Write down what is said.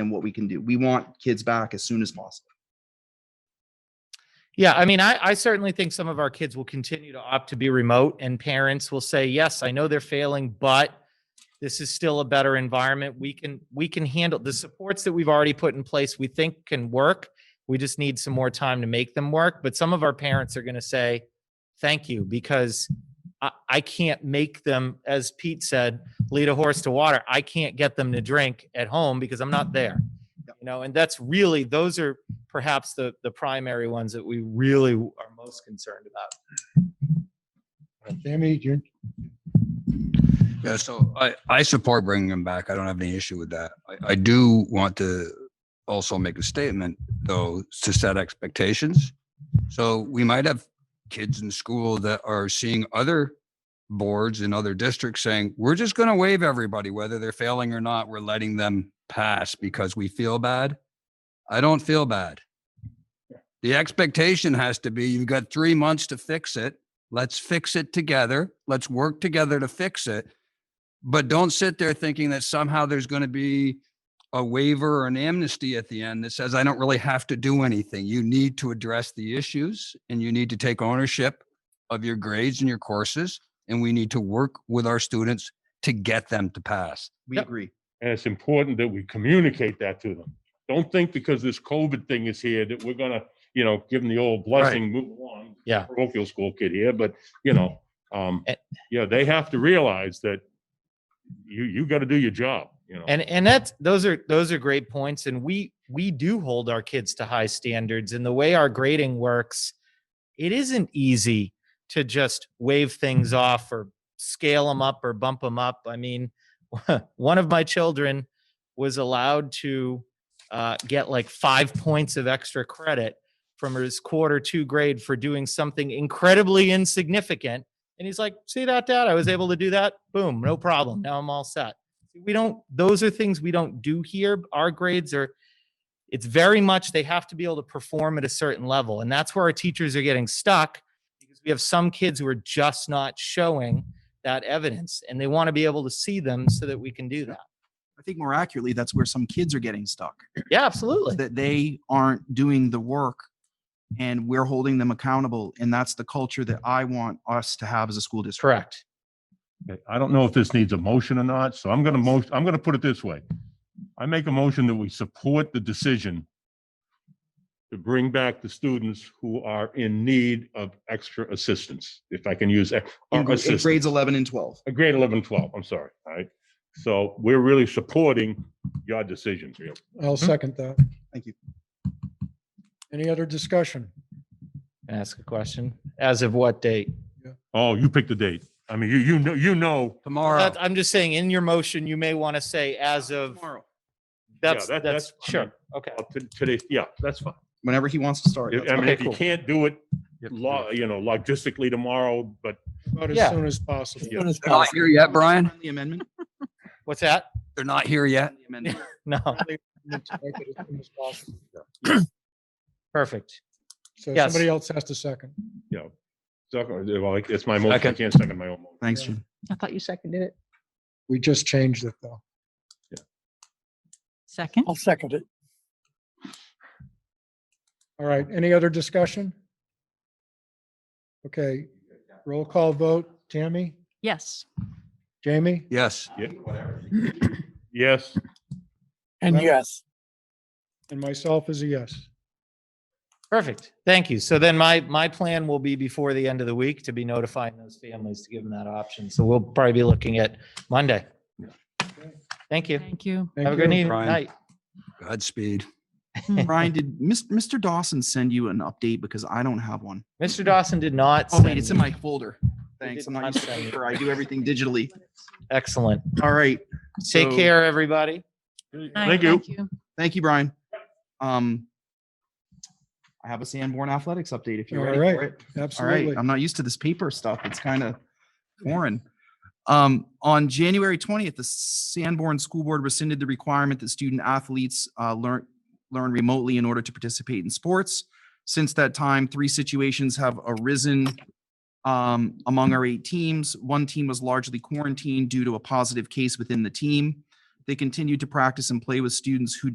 and what we can do. We want kids back as soon as possible. Yeah, I mean, I, I certainly think some of our kids will continue to opt to be remote, and parents will say, "Yes, I know they're failing, but this is still a better environment. We can we can handle the supports that we've already put in place. We think can work. We just need some more time to make them work." But some of our parents are going to say, "Thank you," because I, I can't make them, as Pete said, lead a horse to water. I can't get them to drink at home because I'm not there. You know, and that's really those are perhaps the the primary ones that we really are most concerned about. Sammy, you Yeah, so I, I support bringing them back. I don't have any issue with that. I, I do want to also make a statement, though, to set expectations. So we might have kids in school that are seeing other boards in other districts saying, we're just going to waive everybody, whether they're failing or not. We're letting them pass because we feel bad. I don't feel bad. The expectation has to be you've got three months to fix it. Let's fix it together. Let's work together to fix it but don't sit there thinking that somehow there's going to be a waiver or an amnesty at the end that says I don't really have to do anything. You need to address the issues and you need to take ownership of your grades and your courses and we need to work with our students to get them to pass. We Yep. agree. And it's important that we communicate that to them. Don't think because this COVID thing is here that we're gonna, you know, give them the old blessing, move along. Yeah. Parochial school kid here, but you know, um, Eh. yeah, they have to realize that you, you gotta do your job, you know. And and that's those are those are great points. And we we do hold our kids to high standards. And the way our grading works, it isn't easy to just wave things off or scale them up or bump them up. I mean, one of my children was allowed to uh, get like five points of extra credit from his quarter two grade for doing something incredibly insignificant. And he's like, see that, Dad? I was able to do that. Boom, no problem. Now I'm all set we don't those are things we don't do here our grades are it's very much they have to be able to perform at a certain level and that's where our teachers are getting stuck because we have some kids who are just not showing that evidence and they want to be able to see them so that we can do that I think more accurately, that's where some kids are getting stuck, yeah absolutely that they aren't doing the work and we're holding them accountable. And that's the culture that I want us to have as a school district. correct Okay, I don't know if this needs a motion or not, so I'm gonna motion, I'm gonna put it this way. I make a motion that we support the decision to bring back the students who are in need of extra assistance, if I can use. ex- or In gr- in assistance. grades 11 and 12. Uh, grade 11, 12, I'm sorry, all right? So we're really supporting your decision, Bill. I'll second that. Hmm? Thank you. Any other discussion? Can I ask a question as of what date Oh, you picked the date. I mean, you, you know, you know. Tomorrow, That- i'm just saying in your motion you may want to say as of Tomorrow, that's that- that's, that's fine. sure okay up to Today, yeah, that's fine. whenever he wants to start. that's I mean, Okay, if you cool. can't do it, law, you know, logistically tomorrow, but About as Yeah. soon as possible. Yeah. they're not here yet, Brian. The amendment. what's that They're not here yet. The amendment. no Need to make it as soon as possible. perfect So Yes. somebody else has to second. you know. so, Well, it's my motion. I can't second my own motion. Thanks, Jim. I thought you seconded it. We just changed it though. Second? I'll second it. All right, any other discussion? Okay, roll call vote. Tammy, Yes. Jamie, Yes. Yeah. Yes, And Well- yes, and myself is a yes. Perfect. Thank you. So then my, my plan will be before the end of the week to be notifying those families to give them that option. So we'll probably be looking at Monday. Thank you. Thank you. Thank Have a good you. evening. Brian. night. Godspeed. Brian, did Mis- Mr. Dawson send you an update? Because I don't have one. Mr. Dawson did not. Oh, wait, send it's in me- my folder. Thanks. did I'm not not used to send it. paper. I do everything digitally. Excellent. All right. Take So- care, everybody. thank you. Thank you, Brian. Um, I have a Sanborn Athletics update if you're All ready right. for it. All right, Absolutely. I'm not used to this paper stuff. It's kind of foreign. Um, on January 20th, the Sanborn School Board rescinded the requirement that student athletes uh, learn learn remotely in order to participate in sports. Since that time, three situations have arisen um, among our eight teams. One team was largely quarantined due to a positive case within the team. They continued to practice and play with students who